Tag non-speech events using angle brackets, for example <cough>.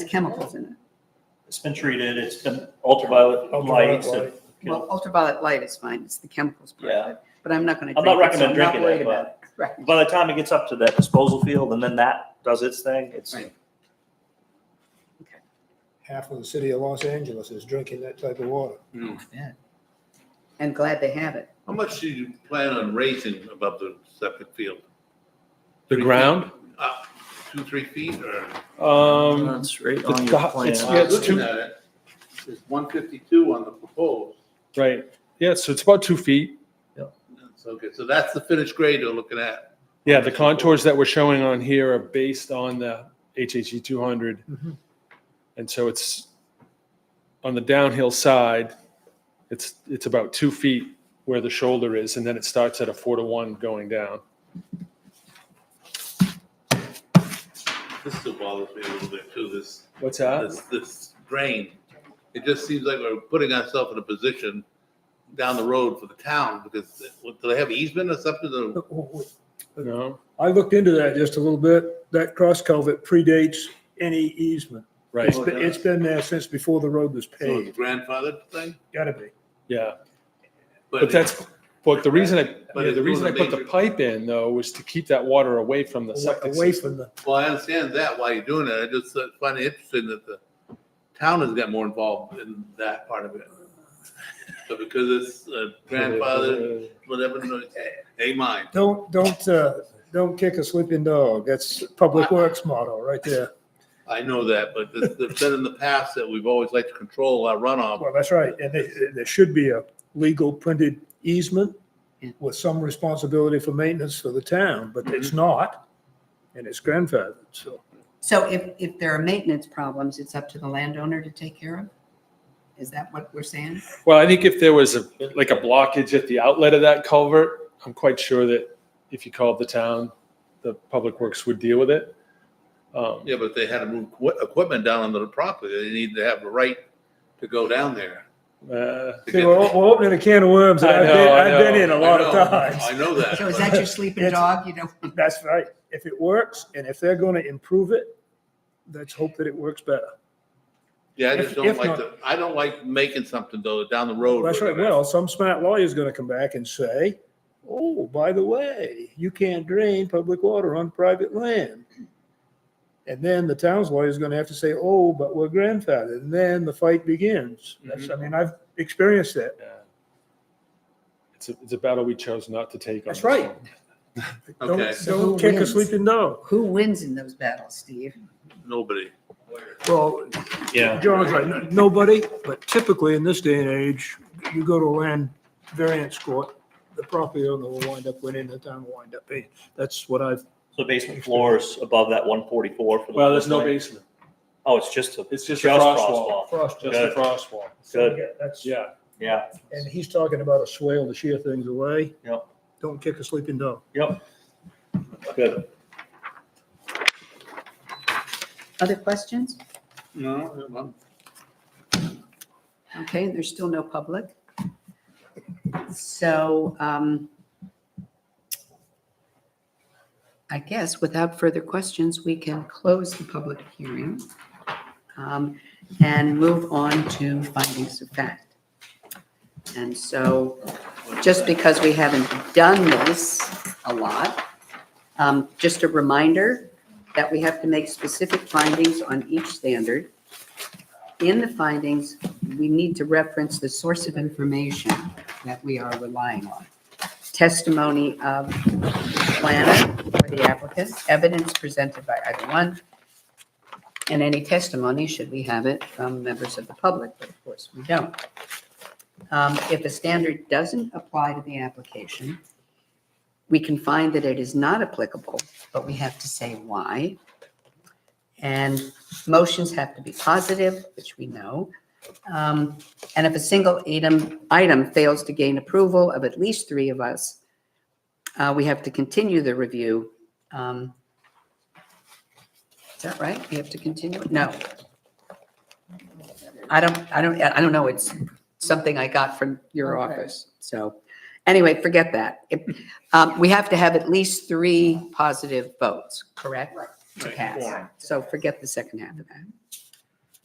chemicals in it. It's been treated, it's been ultraviolet Ultraviolet lights. and- Well, ultraviolet light is fine, it's the chemicals part of Yeah. it, but I'm not gonna I'm drink not it, so I'm recommending not drinking worried it, about it. but Right, by the time it gets up to that disposal field and then that does its thing, it's, Right. Half of the city of Los Angeles is drinking that type of water. and glad they have it. How much do you plan on raising above the septic field? The ground? Up two, three feet or? Um, it's right It's on your got- it's- plan. yeah, it's Looking two- at it, It's one fifty-two on the proposed. right. Yeah, so it's about two feet. So, okay, so that's the finished grade you're looking at. Yeah, the contours that we're showing on here are based on the HHE 200. Mhm. And so it's on the downhill side, it's, it's about two feet where the shoulder is, and then it starts at a four to one going down. This still bothers me a little bit too, this, What's that? this, this drain. It just seems like we're putting ourselves in a position down the road for the town because do they have easement or something? to- No, I looked into that just a little bit. That cross culvert predates any easement. right, It's been, it's been there since before the road was So it's paved. grandfathered thing? Gotta be. yeah. But that's, but the reason I, But yeah, it's the reason I doing a put the major- pipe in though was to keep that water away from the septic Away system. from the, Well, I understand that, why you're doing it. I just uh, find it interesting that the town has got more involved in that part of it. But because it's uh, grandfather, whatever, no, they mind. don't, don't, uh, don't kick a sleeping dog. That's Public Ah. Works motto right there. I know that, but it's it's been in the past that we've always liked to control our runoff. Well, that's right. And there, there should be a legal printed easement Yeah. with some responsibility for maintenance for the town, but Mm-hmm. it's not. And it's grandfathered, so. So if, if there are maintenance problems, it's up to the landowner to take care of? Is that what we're saying? Well, I think if there was a, like a blockage at the outlet of that culvert, I'm quite sure that if you called the town, the public works would deal with it. Um, Yeah, but they had to move equi- equipment down onto the property. They need to have the right to go down there. uh, to See, get- we're, we're opening a can of worms that I I've been, know, I I've been know, in a I lot of know, times. <laughs> I know that. So is but- that your sleeping It's- dog, you know? That's right. If it works and if they're gonna improve it, let's hope that it works better. Yeah, I if- just if don't like not- the, I don't like making something though, down the road. That's we're right. gonna- Well, some smart lawyer's gonna come back and say, oh, by the way, you can't drain public water on private land. And then the town's lawyer's gonna have to say, oh, but we're grandfathered. And then the fight begins. That's, Mm-hmm. I mean, I've experienced that. yeah. It's a, it's a battle we chose not to take. on That's this right. one. Okay. Don't, So who don't kick a wins? sleeping dog. Who wins in those battles, Steve? Nobody. Well, Yeah, John's right, n- nobody, but typically in this day and age, you go to land variance court, the property owner will wind up winning, the town will wind up paying. That's what I've, So basement floors above that one forty-four for the. well, there's no floodplain? basement. Oh, it's just a. It's just a Just frost frost wall, wall. frost. just a frost wall. Good. That's, Yeah, Yeah, and he's talking about a swale to shear things away. Yep. Don't kick a sleeping dog. yep. Good. Other questions? No, I'm- Okay, there's still no public. So um, I guess without further questions, we can close the public hearing um, and move on to findings of fact. And so just because we haven't done this a lot, um, just a reminder that we have to make specific findings on each standard. In the findings, we need to reference the source of information that we are relying on. Testimony of the planner or the applicant, evidence presented by either one, and any testimony, should we have it, from members of the public, but of course, we don't. Um, If a standard doesn't apply to the application, we can find that it is not applicable, but we have to say why. And motions have to be positive, which we know. Um, And if a single item, item fails to gain approval of at least three of us, uh, we have to continue the review. Um, Is that right? We have to continue? it? No. I don't, I don't, I don't know. It's something I got from your Okay. office. So anyway, forget that. If- um, We have to have at least three positive votes, correct? To Right, pass. quorum. So forget the second half of that.